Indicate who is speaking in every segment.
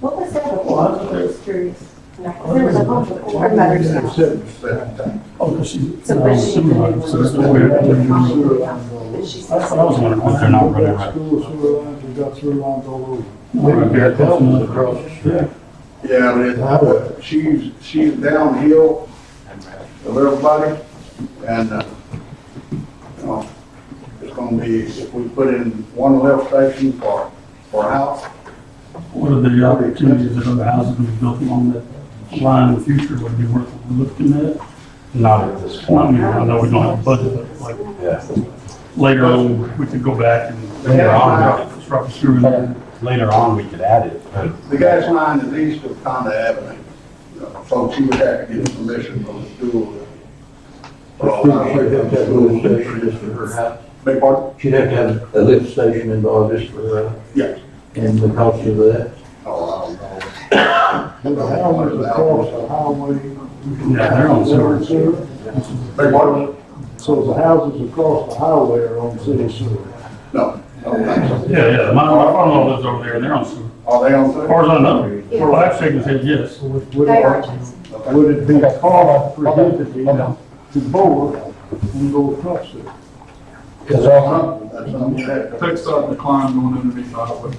Speaker 1: What was that before?
Speaker 2: Well,
Speaker 1: I was curious. There was a bunch of board members now.
Speaker 2: Oh, because she's.
Speaker 1: So, but she didn't
Speaker 2: Sewer,
Speaker 1: even-
Speaker 2: so it's the way it is.
Speaker 1: But she said-
Speaker 2: That's what I was wondering, why they're not running right.
Speaker 3: School sewer lines, we've got sewer lines all
Speaker 2: Maybe they're close enough
Speaker 3: across the street.
Speaker 4: Yeah, but it, uh, she's, she's downhill of everybody, and, uh, you know, it's gonna be, if we put in one lift station for, for a house,
Speaker 2: What are the opportunities that other houses would be built along that line in the future would be worth looking at?
Speaker 5: Not at this
Speaker 2: I
Speaker 5: point,
Speaker 2: mean, I know we don't have a budget, but like
Speaker 5: yeah.
Speaker 2: later on, we could go back and.
Speaker 5: Later on.
Speaker 2: Drop a sewer in there.
Speaker 5: Later on, we could add it, but
Speaker 4: the gas line is east of Conda Avenue. You know, Folks, you would have to get permission from the school. Beg pardon?
Speaker 6: She'd have to have a lift station involved just for her,
Speaker 4: Yes.
Speaker 6: and the cost of that.
Speaker 4: Oh, I
Speaker 3: The
Speaker 4: don't know.
Speaker 3: houses across the highway.
Speaker 2: Yeah, they're on sewer.
Speaker 4: Beg pardon?
Speaker 3: So the houses across the highway are on city sewer.
Speaker 4: No, I don't think so.
Speaker 2: Yeah, yeah, my, my father-in-law lives over there and they're on sewer.
Speaker 4: Are they on?
Speaker 2: As far as I know, for last second said yes.
Speaker 3: Would
Speaker 1: They
Speaker 3: would
Speaker 1: are,
Speaker 3: it,
Speaker 1: Jason.
Speaker 3: would it be cost prohibitive to bore and go across it?
Speaker 4: That's something, that's something you have to-
Speaker 7: Text dot decline going underneath the highway.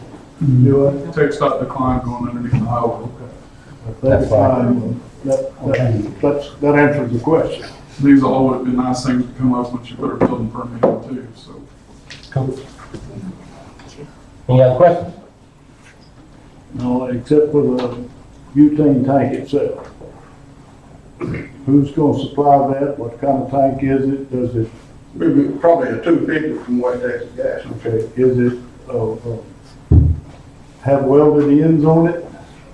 Speaker 3: Do it?
Speaker 7: Text dot decline going underneath the highway.
Speaker 3: That's fine. That, that, that's- that answers the question.
Speaker 7: These all would have been nice things to come up once you put a building permit in too, so.
Speaker 5: Cool. Any other questions?
Speaker 3: No, except for the butane tank itself. Who's gonna supply that? What kind of tank is it? Does it,
Speaker 4: Maybe probably a two fifty from West Texas Gas.
Speaker 3: okay, is it, uh, uh, have welded ends on it?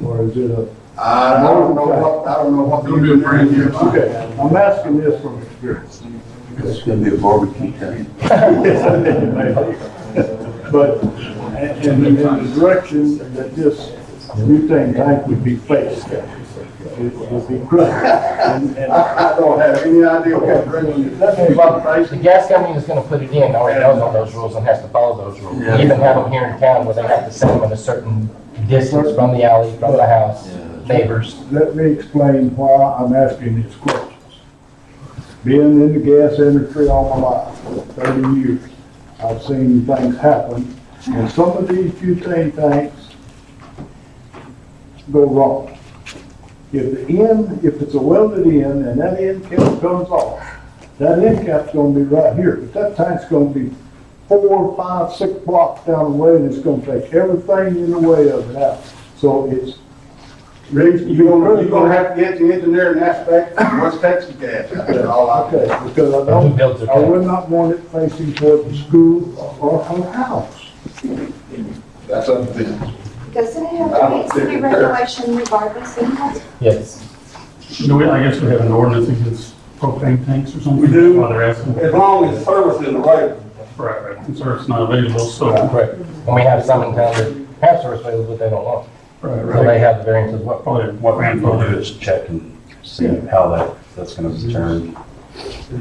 Speaker 3: Or is it a,
Speaker 4: I don't know what, I don't know what.
Speaker 7: It'll be a brand new line.
Speaker 3: okay, I'm asking this from experience.
Speaker 6: It's gonna be a barbecue tank.
Speaker 3: But, and, and in the direction that this butane tank would be faced, it would be crushed. And, and
Speaker 4: I, I don't have any idea what direction it's
Speaker 5: Well, the
Speaker 4: facing.
Speaker 5: gas company is gonna put it in, already knows all those rules and has to follow those rules. We Even have them here in town where they have to set them at a certain distance from the alley, from the house, neighbors.
Speaker 3: Let me explain why I'm asking these questions. Being in the gas industry all my life, thirty years, I've seen things happen, and some of these butane tanks go wrong. If the end, if it's a welded end and that end cap comes off, that end cap's gonna be right here, but that tank's gonna be four, five, six blocks down the way, and it's gonna take everything in the way of it out. So it's
Speaker 4: Reason, you're gonna, you're gonna have to get the engineering aspect from West Texas Gas. That's all I
Speaker 3: Okay, because I
Speaker 5: Who builds
Speaker 3: don't,
Speaker 5: it?
Speaker 3: I would not want it facing toward the school or her house.
Speaker 4: That's up to them.
Speaker 1: Doesn't it have to meet city regulation regardless anyhow?
Speaker 5: Yes.
Speaker 2: Do we, I guess we have an ordinance against propane tanks or something?
Speaker 4: We do.
Speaker 2: While they're asking.
Speaker 4: As long as service is available.
Speaker 2: Right, right. I'm sorry, it's not available, so.
Speaker 5: Correct. And we have some in town that have service available, but they don't want.
Speaker 2: Right,
Speaker 5: So
Speaker 2: right.
Speaker 5: they have the variance as well.
Speaker 2: Probably what ran
Speaker 8: We'll
Speaker 2: for
Speaker 8: do
Speaker 2: it.
Speaker 8: is check and see how that, that's gonna be turned.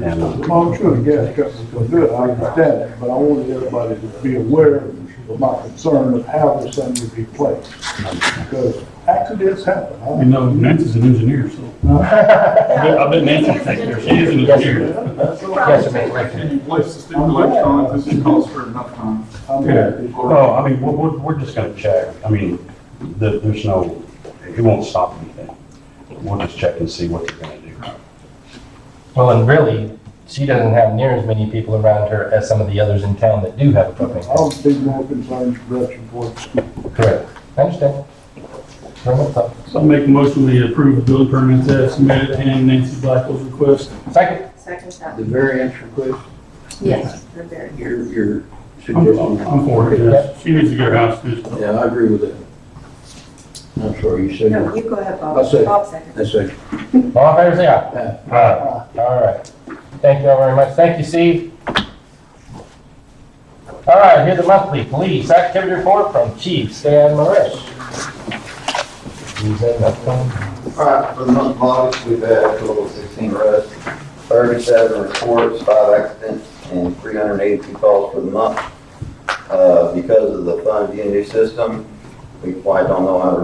Speaker 8: And uh,
Speaker 3: Well, I'm sure the gas company's gonna do it, I understand that, but I wanted everybody to be aware of my concern of how this thing would be placed. Because accidents happen. I-
Speaker 2: You know, Nancy's an engineer, so. I bet- I bet Nancy thinks there, she is an engineer.
Speaker 5: Yes, ma'am.
Speaker 7: And you place the stipulation on it, this should cost for enough time.
Speaker 3: I'm
Speaker 8: Yeah,
Speaker 3: happy.
Speaker 8: no, I mean, we're, we're, we're just gonna check, I mean, there, there's no, it won't stop anything. We'll just check and see what they're gonna do.
Speaker 5: Well, and really, she doesn't have near as many people around her as some of the others in town that do have a propane
Speaker 3: I would
Speaker 5: tank.
Speaker 3: be more concerned with direction for the school.
Speaker 5: Correct. I understand. Very much so.
Speaker 2: So I make a motion we approve the building permits as submitted and Nancy Blackwell's request.
Speaker 5: Second,
Speaker 1: Second
Speaker 6: The
Speaker 1: time.
Speaker 6: variance request,
Speaker 1: Yes, they're very.
Speaker 6: your, your
Speaker 2: I'm, I'm
Speaker 6: suggestion.
Speaker 2: I'm for it, yes. She needs to get her house fixed up.
Speaker 6: Yeah, I agree with that. I'm sorry, you said,
Speaker 1: No, you go ahead, Bob.
Speaker 6: I'll say-
Speaker 1: Bob second.
Speaker 6: that's a,
Speaker 5: all in favor, say aye. All right. Thank you all very much. Thank you, Steve. All right, here's the monthly police activity report from Chief Stan Marish. He's in the phone.
Speaker 9: All right, for the month of August, we've had a total of 16 arrests, 37 reports, 5 accidents, and 382 calls for the month. Uh, Because of the fund DND system, we quite don't know how to run